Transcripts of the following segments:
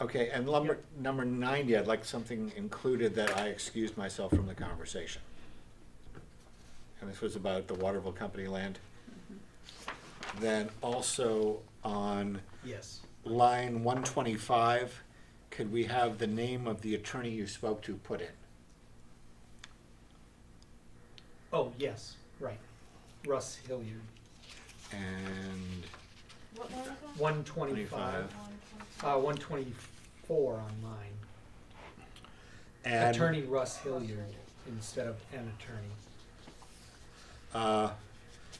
Okay, and number, number ninety, I'd like something included that I excused myself from the conversation. And this was about the Waterville Company land. Then also on Yes. line one twenty-five, could we have the name of the attorney you spoke to put in? Oh, yes, right. Russ Hilliard, And What line is that? one twenty-five, uh, one twenty-four on mine. add. Attorney Russ Hilliard instead of an attorney. Uh,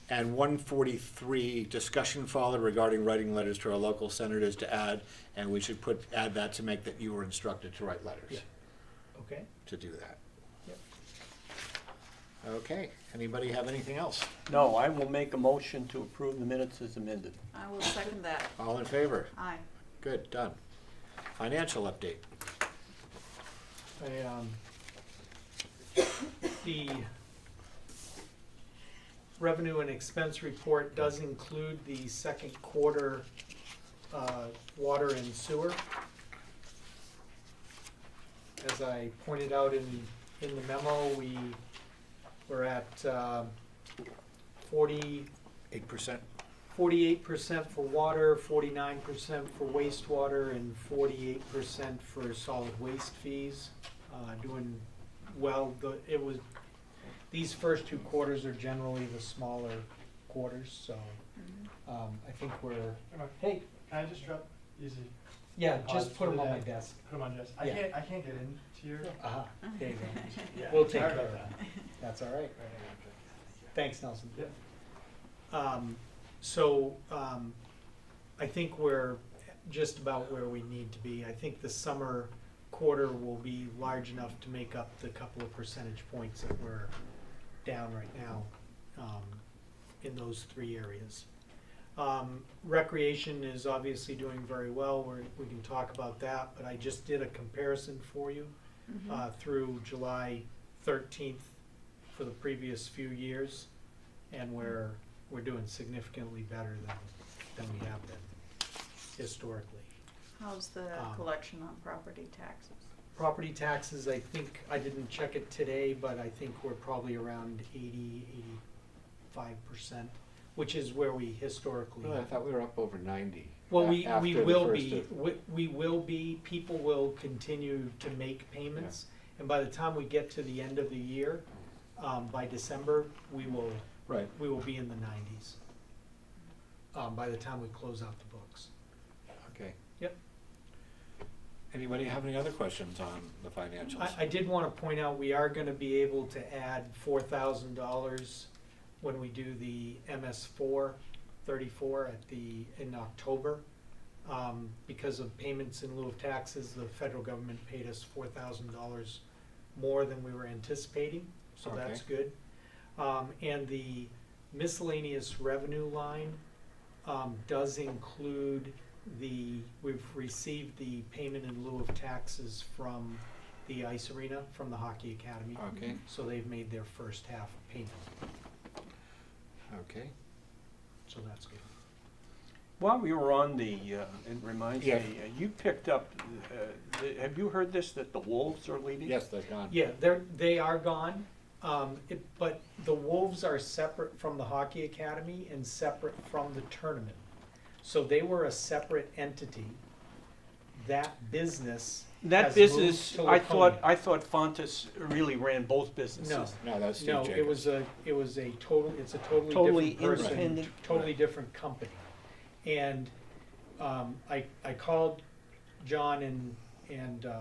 And 143, discussion followed regarding writing letters to our local senators to add, and we should put, add that to make that you were instructed to write Yeah. letters, Okay? to do that. Yep. Okay, anybody have anything else? No, I will make a motion to approve the minutes as amended. I will second that. All in favor? Aye. Good, done. Financial update. I, um, the revenue and expense report does include the second quarter, uh, water and sewer. As I pointed out in, in the memo, we were at, um forty, 8%? forty-eight percent for water, forty-nine percent for wastewater, and forty-eight percent for solid waste fees. Uh, doing well, the, it was, these first two quarters are generally the smaller quarters, so, um, I think we're, hey, Can I just drop, easy, yeah, Pause just put them for on the my day. desk. put them on just, I Yeah. can't, I can't get into your. Uh-huh, there you go. We'll take Sorry care of about that. That's all right. Right, I Thanks, Nelson. got you. Um, so, um, I think we're just about where we need to be. I think the summer quarter will be large enough to make up the couple of percentage points that we're down right now, um, in those three areas. Um, recreation is obviously doing very well, we're, we can talk about that, but I just did a comparison for you, Mm-hmm. uh, through July thirteenth for the previous few years, and we're, we're doing significantly better than, than we have been historically. How's the Um, collection on property taxes? Property taxes, I think, I didn't check it today, but I think we're probably around 80, 85%, which is where we historically. Well, I thought we were up over 90. Well, a- we, we after the will first be, of- we, we will be, people will continue to make payments. And by the time we get to the end of the year, um, by December, we will, Right, we will be in the 90s. Um, by the time we close out the books. okay. Yep. Anybody have any other questions on the financials? I, I did want to point out, we are going to be able to add four thousand dollars when we do the MS four thirty-four at the, in October. Um, because of payments in lieu of taxes, the federal government paid us four thousand dollars more than we were anticipating, so that's good. Um, and the miscellaneous revenue line, um, does include the, we've received the payment in lieu of taxes from the ice arena, from the hockey academy. Okay, So they've made their first half payment, okay. so that's good. While we were on the, uh, it reminds me, Yeah. uh, you picked up, uh, the- have you heard this, that the wolves are leaving? Yes, they're gone. Yeah, they're, they are gone, um, it, but the Wolves are separate from the hockey academy and separate from the tournament. So they were a separate entity. That business That has moved business, to I thought, Laconia. I thought Fontas really ran both No. businesses. No, that's Steve No, Jacobs. it was a, it was a total, it's a totally Totally different person, independent. totally different company. And, um, I, I called John and, and, uh,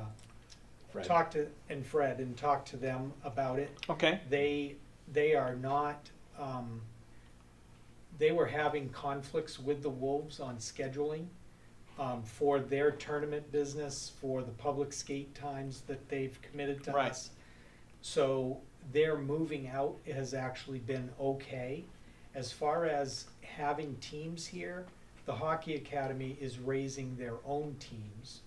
Fred. talked to, and Fred, and talked to them about it. Okay, They, they are not, um, they were having conflicts with the Wolves on scheduling, um, for their tournament business, for the public skate times that they've committed to Right. us. So their moving out has actually been okay. As far as having teams here, the Hockey Academy is raising their own teams.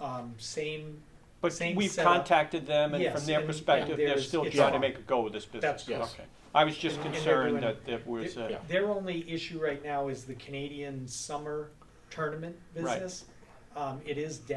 Um, same, but Same we've setup. contacted them, and Yes, from their and- perspective, and they're there's- still it's trying to fine. make a go of this business. That's correct. Okay. I was just And- and they're doing- concerned that there was, uh, Yeah. their only issue right now is the Canadian summer tournament Right. business. Um, it is down.